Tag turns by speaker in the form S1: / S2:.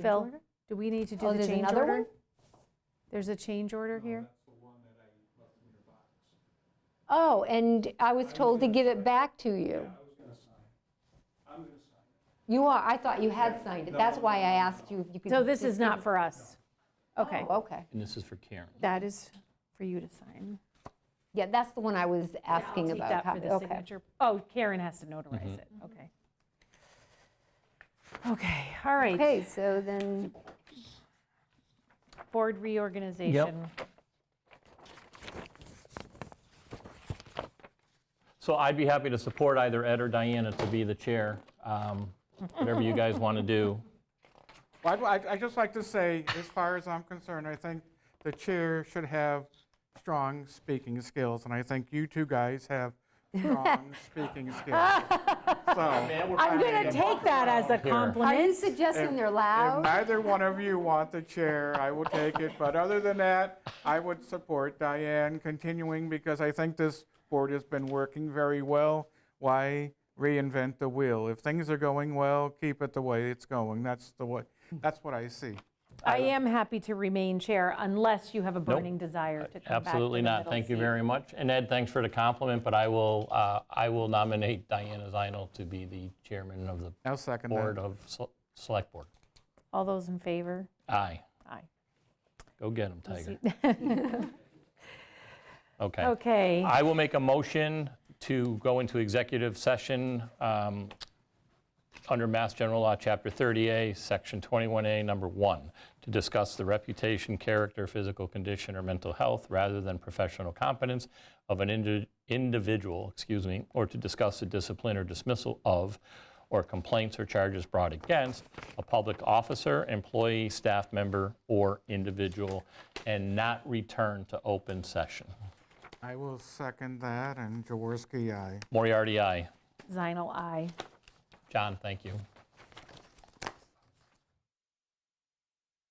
S1: Phil, do we need to
S2: Oh,
S1: do the
S2: there's
S1: change
S2: another
S1: order?
S2: one?
S1: There's a change order here?
S2: Oh, and I was told to give it back to you. You are, I thought you had signed it. That's why I asked you if you could.
S1: So this is not for us? Okay,
S2: Oh, okay.
S3: And this is for Karen.
S1: that is for you to sign.
S2: Yeah, that's the one I was asking
S1: Take
S2: about.
S1: that for
S2: copy.
S1: the
S2: Okay.
S1: signature. Oh, Karen has to
S3: Mm-hmm.
S1: notarize it, okay. Okay, all right,
S2: Okay, so then,
S1: board reorganization.
S3: So I'd be happy to support either Ed or Diana to be the chair, um, whatever you guys want to do.
S4: Well, I'd- I'd, I'd just like to say, as far as I'm concerned, I think the chair should have strong speaking skills, and I think you two guys have strong speaking skills. So,
S1: I'm going to take that as a
S3: Here.
S2: are you
S1: compliment.
S2: suggesting they're
S4: if
S2: loud?
S4: neither one of you want the chair, I will take it, but other than that, I would support Diane continuing, because I think this board has been working very well. Why reinvent the wheel? If things are going well, keep it the way it's going. That's the way, that's what I see.
S1: I am happy to remain chair unless you have a burning desire to come back to
S3: Absolutely
S1: the
S3: not.
S1: middle
S3: Thank you
S1: seat.
S3: very much. And Ed, thanks for the compliment, but I will, uh, I will nominate Diana Zinal to be the chairman of the
S4: I'll second that.
S3: Board of Sel- Select Board.
S1: All those in favor?
S3: Aye.
S1: Aye.
S3: Go get him, Tiger. Okay.
S1: Okay.
S3: I will make a motion to go into executive session um, under Mass General Law, Chapter 30A, Section 21A, Number 1, to discuss the reputation, character, physical condition, or mental health, rather than professional competence of an indi- individual, excuse me, or to discuss the discipline or dismissal of, or complaints or charges brought against, a public officer, employee, staff member, or individual, and not return to open session.
S4: I will second that, and Jaworski, aye.
S3: Moriarty, aye.
S1: Zinal, aye.
S3: John, thank you.